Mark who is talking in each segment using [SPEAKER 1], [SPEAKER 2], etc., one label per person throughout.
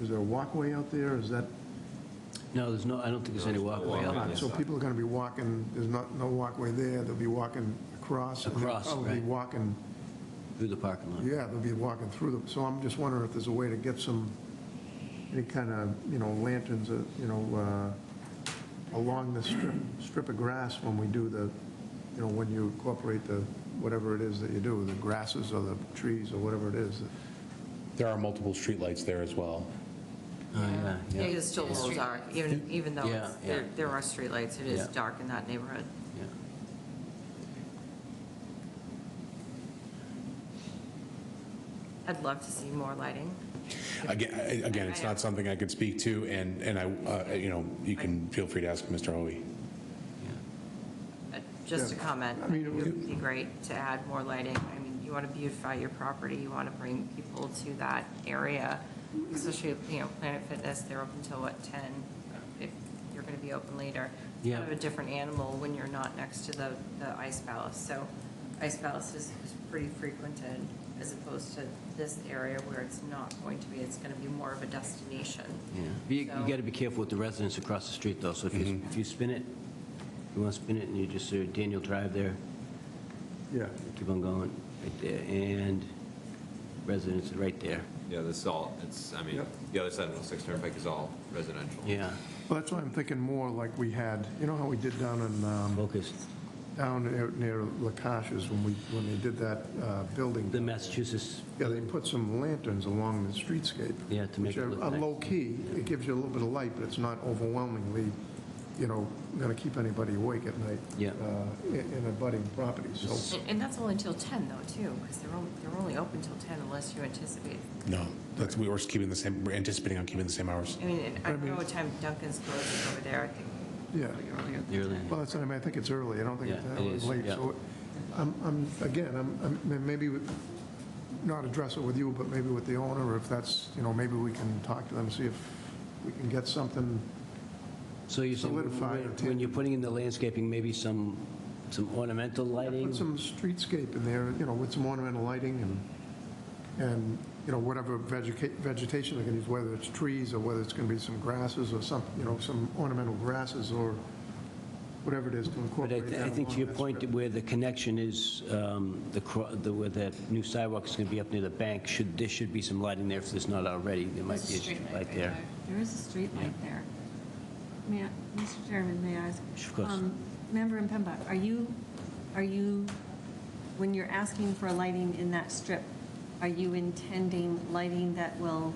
[SPEAKER 1] is there a walkway out there? Is that,
[SPEAKER 2] No, there's no, I don't think there's any walkway out there.
[SPEAKER 1] so people are going to be walking, there's not, no walkway there, they'll be walking across. and they'll
[SPEAKER 2] Across,
[SPEAKER 1] probably be
[SPEAKER 2] right.
[SPEAKER 1] walking,
[SPEAKER 2] through the parking lot.
[SPEAKER 1] yeah, they'll be walking through them. So I'm just wondering if there's a way to get some, any kind of, you know, lanterns, uh, you know, uh, along the strip, strip of grass when we do the, you know, when you incorporate the, whatever it is that you do, the grasses or the trees or whatever it is.
[SPEAKER 3] There are multiple streetlights there as well.
[SPEAKER 2] Oh, yeah,
[SPEAKER 4] It
[SPEAKER 2] yeah,
[SPEAKER 4] is still a little dark, even, even though it's-
[SPEAKER 2] Yeah,
[SPEAKER 4] there
[SPEAKER 2] yeah.
[SPEAKER 4] there are streetlights, it is
[SPEAKER 2] Yeah.
[SPEAKER 4] dark in that neighborhood.
[SPEAKER 2] yeah.
[SPEAKER 4] I'd love to see more lighting.
[SPEAKER 3] Again, I- again, it's not something I could speak to, and, and I, uh, you know, you can feel free to ask Mr. Hoey.
[SPEAKER 4] Uh, Just a
[SPEAKER 1] Yeah.
[SPEAKER 4] comment,
[SPEAKER 1] I mean,
[SPEAKER 4] it
[SPEAKER 1] it
[SPEAKER 4] would be great to add more lighting. I mean, you want to beautify your property, you want to bring people to that area, especially, you know, Planet Fitness, they're open till what, 10? If you're going to be open later. It's Kind
[SPEAKER 2] Yeah.
[SPEAKER 4] of a different animal when you're not next to the, the Ice Palace. So Ice Palace is, is pretty frequented as opposed to this area where it's not going to be, it's going to be more of a destination.
[SPEAKER 2] yeah. But You
[SPEAKER 4] So-
[SPEAKER 2] got to be careful with the residents across the street, though, so if
[SPEAKER 1] Mm-hmm.
[SPEAKER 2] you, if you spin it, you want to spin it, and you just, uh, Daniel Drive there,
[SPEAKER 1] Yeah.
[SPEAKER 2] keep on going, right there, and residents right there,
[SPEAKER 5] Yeah, this is all, it's, I mean,
[SPEAKER 1] Yep.
[SPEAKER 5] the other side of the Six Turnpike is all residential.
[SPEAKER 2] yeah,
[SPEAKER 1] Well, that's why I'm thinking more like we had, you know how we did down in, um,
[SPEAKER 2] focus.
[SPEAKER 1] down near- near Lakash's when we, when they did that uh, building.
[SPEAKER 2] The Massachusetts,
[SPEAKER 1] Yeah, they put some lanterns along the streetscape.
[SPEAKER 2] Yeah, to make it
[SPEAKER 1] Which
[SPEAKER 2] look
[SPEAKER 1] are- are
[SPEAKER 2] nice.
[SPEAKER 1] low-key. It gives you a little bit of light, but it's not overwhelmingly, you know, going to keep anybody awake at night.
[SPEAKER 2] Yeah.
[SPEAKER 1] uh, In in abutting properties, so
[SPEAKER 4] And- And that's only until 10 though, too, because they're, on- they're only open till 10 unless you anticipate
[SPEAKER 3] No, that's, we were keeping the same, we're anticipating on keeping the same hours.
[SPEAKER 4] I mean, and I don't know what time Duncan's closes over there, I think.
[SPEAKER 1] Yeah.
[SPEAKER 4] earlier.
[SPEAKER 2] early,
[SPEAKER 1] Well, that's, I mean, I think it's early, I don't think it's
[SPEAKER 2] Yeah,
[SPEAKER 1] that
[SPEAKER 2] it is,
[SPEAKER 1] late,
[SPEAKER 2] yeah.
[SPEAKER 1] so I'm, I'm, again, I'm, I'm- maybe we- not address it with you, but maybe with the owner, if that's, you know, maybe we can talk to them, see if we can get something,
[SPEAKER 2] so you're saying,
[SPEAKER 1] Solidify
[SPEAKER 2] when-
[SPEAKER 1] or
[SPEAKER 2] when
[SPEAKER 1] tan-
[SPEAKER 2] you're putting in the landscaping, maybe some, some ornamental lighting?
[SPEAKER 1] put some streetscape in there, you know, with some ornamental lighting and, and, you know, whatever vegeta- vegetation they're gonna use, whether it's trees or whether it's gonna be some grasses or some, you know, some ornamental grasses or whatever it is to
[SPEAKER 2] But I
[SPEAKER 1] incorporate
[SPEAKER 2] th-
[SPEAKER 1] that.
[SPEAKER 2] I think to
[SPEAKER 1] along
[SPEAKER 2] your
[SPEAKER 1] that
[SPEAKER 2] point,
[SPEAKER 1] strip.
[SPEAKER 2] where the connection is, um, the cro- the- where that new sidewalk is going to be up near the bank, should, there should be some lighting there if there's not already. There might be a street light there.
[SPEAKER 6] There is a street light there. May, I- Mr. Chairman, may I ask?
[SPEAKER 2] Of course.
[SPEAKER 6] um, Member in Pembroke, are you, are you, when you're asking for lighting in that strip, are you intending lighting that will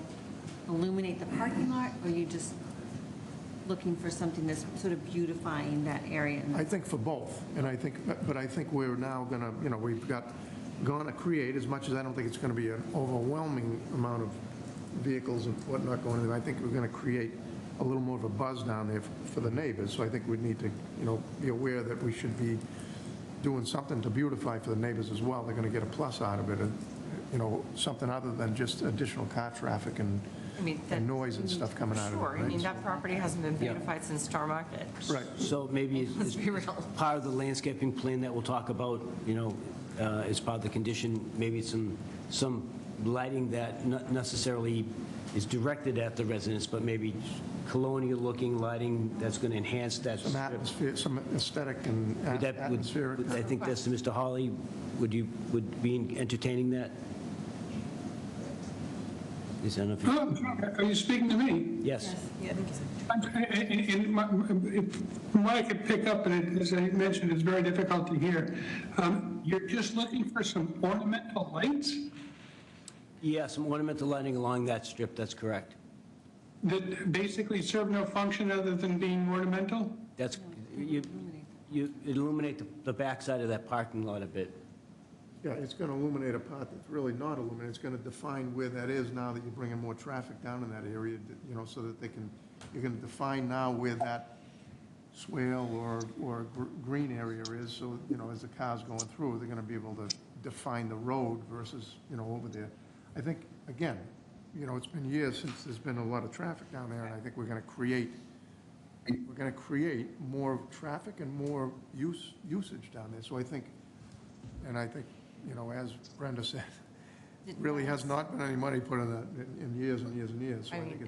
[SPEAKER 6] illuminate the parking lot? Or are you just looking for something that's sort of beautifying that area? and
[SPEAKER 1] I think for both, and I think, but- but I think we're now gonna, you know, we've got, gonna create, as much as I don't think it's gonna be an overwhelming amount of vehicles and whatnot going in, I think we're gonna create a little more of a buzz down there f- for the neighbors, so I think we need to, you know, be aware that we should be doing something to beautify for the neighbors as well, they're gonna get a plus out of it, and, you know, something other than just additional car traffic and
[SPEAKER 4] I mean, that-
[SPEAKER 1] and noise and stuff coming out of it.
[SPEAKER 4] Sure, I mean,
[SPEAKER 1] right?
[SPEAKER 4] that property hasn't been
[SPEAKER 2] Yeah.
[SPEAKER 4] beautified since Star Market.
[SPEAKER 1] Right.
[SPEAKER 2] So maybe it's-
[SPEAKER 4] Let's be real.
[SPEAKER 2] part of the landscaping plan that we'll talk about, you know, uh, as part of the condition, maybe some, some lighting that not necessarily is directed at the residents, but maybe colonial-looking lighting that's going to enhance that
[SPEAKER 1] Some
[SPEAKER 2] strip.
[SPEAKER 1] atmosphere, some aesthetic and
[SPEAKER 2] Would that- would-
[SPEAKER 1] atmospheric.
[SPEAKER 2] would- I think that's to Mr. Hawley, would you, would be entertaining that? Is that enough?
[SPEAKER 7] Hello, are you speaking to me?
[SPEAKER 2] Yes,
[SPEAKER 7] I'm- uh, And and my- if- from what I could pick up, and it- as I mentioned, it's very difficult to hear, um, you're just looking for some ornamental lights
[SPEAKER 2] yes, some ornamental lighting along that strip, that's correct.
[SPEAKER 7] that basically serve no function other than being ornamental?
[SPEAKER 2] That's, you, you illuminate the- the backside of that parking lot a bit.
[SPEAKER 1] Yeah, it's going to illuminate a part that's really not illuminated. It's going to define where that is now that you're bringing more traffic down in that area, you know, so that they can, you're going to define now where that swale or, or gr- green area is, so, you know, as the car's going through, they're going to be able to define the road versus, you know, over there. I think, again, you know, it's been years since there's been a lot of traffic down there, and I think we're going to create, we're going to create more traffic and more use, usage down there. So I think and I think, you know, as Brenda said, really has not been any money put in that in- in years and years and years. So
[SPEAKER 4] I
[SPEAKER 1] I think
[SPEAKER 4] mean,